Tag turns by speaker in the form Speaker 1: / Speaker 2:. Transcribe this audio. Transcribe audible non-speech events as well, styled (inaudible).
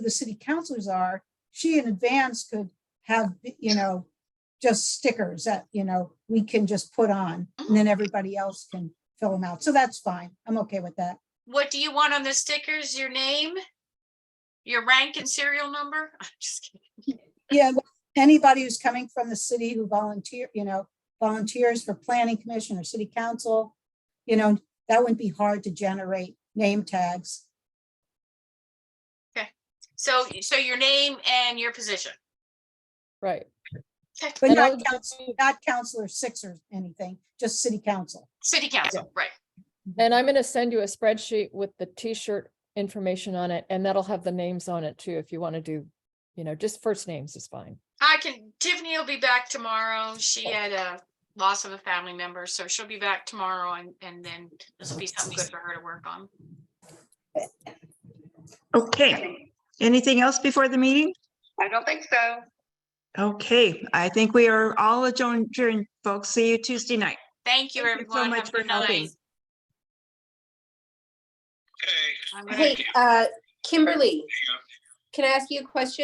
Speaker 1: the city councilors are, she in advance could have, you know, just stickers that, you know, we can just put on and then everybody else can fill them out. So that's fine. I'm okay with that.
Speaker 2: What do you want on the stickers? Your name? Your rank and serial number? (laughs) I'm just kidding.
Speaker 1: Yeah, well, anybody who's coming from the city who volunteer, you know, volunteers for planning commission or city council, you know, that wouldn't be hard to generate name tags.
Speaker 2: So, so your name and your position.
Speaker 3: Right.
Speaker 2: Okay.
Speaker 1: But
Speaker 3: And
Speaker 1: not
Speaker 3: I'll
Speaker 1: council, not counselor six or anything, just city council.
Speaker 2: City council, right.
Speaker 3: And I'm gonna send you a spreadsheet with the T-shirt information on it, and that'll have the names on it too, if you want to do, you know, just first names is fine.
Speaker 2: I can, Tiffany will be back tomorrow. She
Speaker 4: Oh.
Speaker 2: had a loss of a family member, so she'll be back tomorrow and, and then this will be something good for her to work on.
Speaker 4: Okay, anything else before the meeting?
Speaker 5: I don't think so.
Speaker 4: Okay, I think we are all adjourned, adjourned, folks. See you Tuesday night.
Speaker 2: Thank you,
Speaker 4: Thank you so
Speaker 2: everyone.
Speaker 4: much
Speaker 2: Have a
Speaker 4: for
Speaker 2: good night.
Speaker 4: helping.
Speaker 2: I'm gonna-
Speaker 6: Hey, uh, Kimberly, can I ask you a question?